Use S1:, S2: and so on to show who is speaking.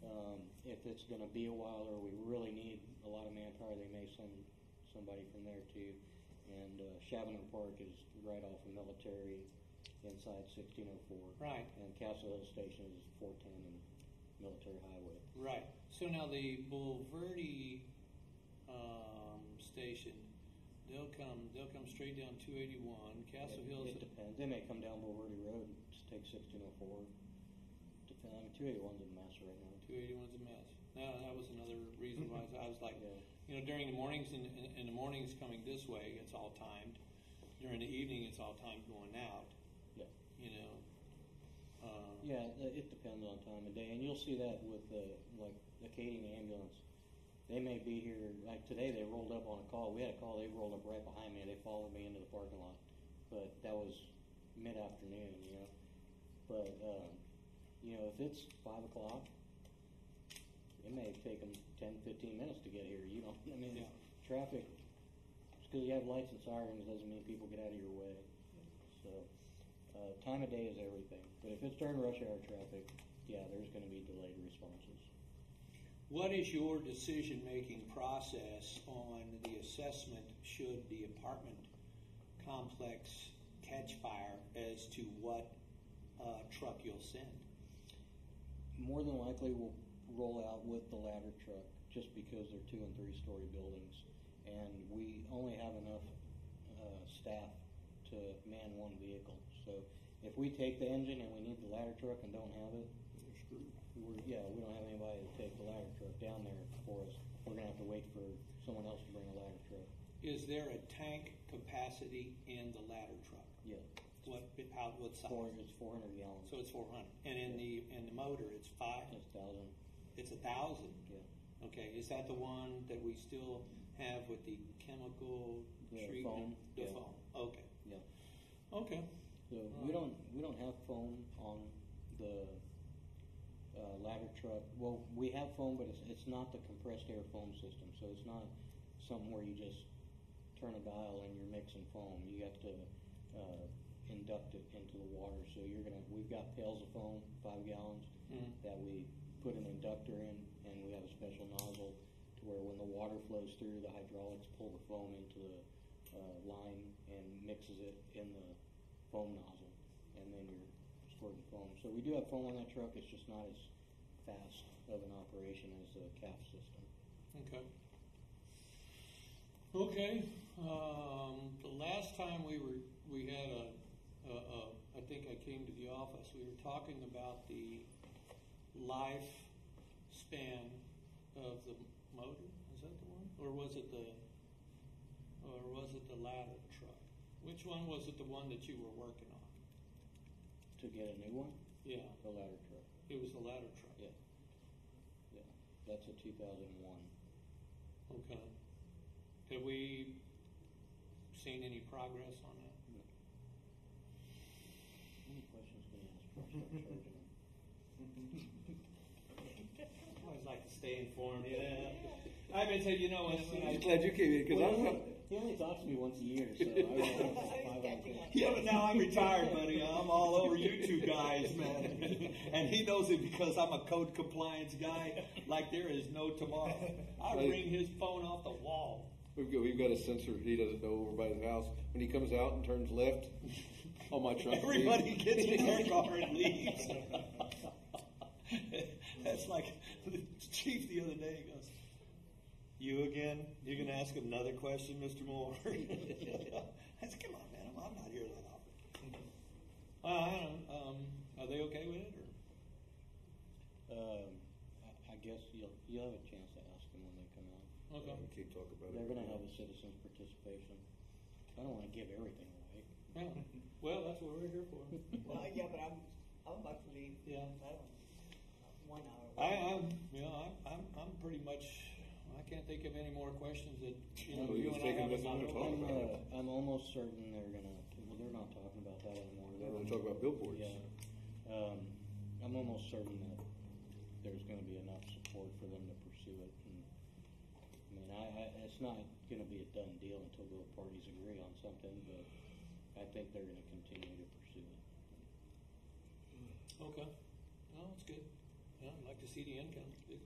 S1: Um, if it's gonna be a while or we really need a lot of manpower, they may send somebody from there too. And uh, Chavano Park is right off of Military inside sixteen oh four.
S2: Right.
S1: And Castle Hill Station is four ten and Military Highway.
S2: Right. So now the Bulverde um, station, they'll come. They'll come straight down 281. Castle
S1: It- It
S2: Hills.
S1: depends. They may come down Bulverde Road and just take sixteen oh four. Depend, I mean, two eighty-one's a mess right now.
S2: 281's a mess. Now that was another reason why I was, I was like,
S1: Yeah.
S2: you know, during the mornings and in, in the mornings coming this way, it's all timed. During the evening, it's all timed going out.
S1: Yeah.
S2: You know. Um,
S1: Yeah, it it depends on time of day, and you'll see that with the, like, Acadian ambulance. They may be here, like today, they rolled up on a call, we had a call, they rolled up right behind me, and they followed me into the parking lot. But that was mid-afternoon, you know? But, um, you know, if it's five o'clock, it may take them ten, fifteen minutes to get here, you know, I mean,
S2: Yeah.
S1: traffic, just because you have lights and sirens doesn't mean people get out of your way. So, uh, time of day is everything, but if it's during rush hour traffic, yeah, there's gonna be delayed responses.
S2: What is your decision-making process on the assessment should the apartment complex catch fire as to what uh, truck you'll send?
S1: More than likely, we'll roll out with the ladder truck, just because they're two and three story buildings, and we only have enough, uh, staff to man one vehicle. So if we take the engine and we need the ladder truck and don't have it, we're, yeah, we don't have anybody to take the ladder truck down there for us. We're gonna have to wait for someone else to bring a ladder truck.
S2: Is there a tank capacity in the ladder truck?
S1: Yeah,
S2: What, how, what
S1: four,
S2: size?
S1: it's four hundred gallons.
S2: So it's four hundred, and in the, in the motor, it's five,
S1: That's thousand,
S2: it's a thousand?
S1: yeah.
S2: Okay, is that the one that we still have with the chemical
S1: Yeah,
S2: treatment?
S1: foam.
S2: The
S1: Yeah.
S2: foam, okay,
S1: Yeah.
S2: okay.
S1: So we don't we don't have foam on the uh, ladder truck. Well, we have foam, but it's it's not the compressed air foam system. So it's not something where you just turn a dial and you're mixing foam. You have to uh, induct it into the water. So you're gonna we've got pails of foam, five gallons,
S2: Mhm.
S1: that we put an inductor in, and we have a special nozzle to where when the water flows through, the hydraulics pull the foam into the uh, line and mixes it in the foam nozzle, and then you're squirting foam. So we do have foam on that truck. It's just not as fast of an operation as the CAF system.
S2: Okay. Okay, um, the last time we were, we had a, a, a, I think I came to the office, we were talking about the lifespan of the motor, is that the one? Or was it the, or was it the ladder truck? Which one was it, the one that you were working on?
S1: To get a new one,
S2: Yeah,
S1: the ladder truck.
S2: it was the ladder truck.
S1: Yeah, yeah. That's a 2001.
S2: Okay. Have we seen any progress on that?
S1: Any questions can you ask before I start charging them?
S2: Always like to stay informed. Yeah. I've been saying, you know, when, when I,
S3: glad you came in because
S1: Well,
S3: I
S1: he
S3: was
S1: only- He only talks to me once a year, so I don't know. Five out of ten.
S3: Yeah, but now I'm retired, buddy. I'm all over you two guys,
S2: man,
S3: man.
S2: and he knows it because I'm a code compliance guy. Like there is no tomorrow. I
S3: Right.
S2: ring his phone off the wall.
S3: We've got, we've got a sensor. He doesn't know over by his house. When he comes out and turns left on Oh, my truck,
S2: Everybody gets in their car and leaves. That's like the chief the other day goes, "You again? You're gonna ask another question, Mr. Moore?" I said, "Come on, man. I'm, I'm not here that often." Well, I don't. Um, are they okay with it? Or?
S1: Um, I, I guess you'll, you'll have a chance to ask them when they come out.
S3: Yeah, we Keep talking about
S1: They're
S3: it.
S1: gonna have a citizen's participation. I don't wanna give everything away.
S2: Yeah. Well, that's what we're here for.
S4: Well, yeah, but I'm, I'm about to leave.
S2: Yeah.
S4: I don't, one hour.
S2: I, I'm, you know, I'm, I'm, I'm pretty much. I can't think of any more questions that you know.
S3: Well,
S2: you
S3: you
S2: and I
S3: was taking
S2: haven't
S3: this long to
S2: knocked over.
S3: talk
S1: I'm,
S3: about it.
S1: uh, I'm almost certain they're gonna, well, they're not talking about that anymore.
S3: They're gonna talk about billboards.
S1: Yeah. Um, I'm almost certain that there's gonna be enough support for them to pursue it. And, I mean, I, I, it's not gonna be a done deal until both parties agree on something, but I think they're gonna continue to pursue it.
S2: Okay. No, it's good. Yeah, I'd like to see the income.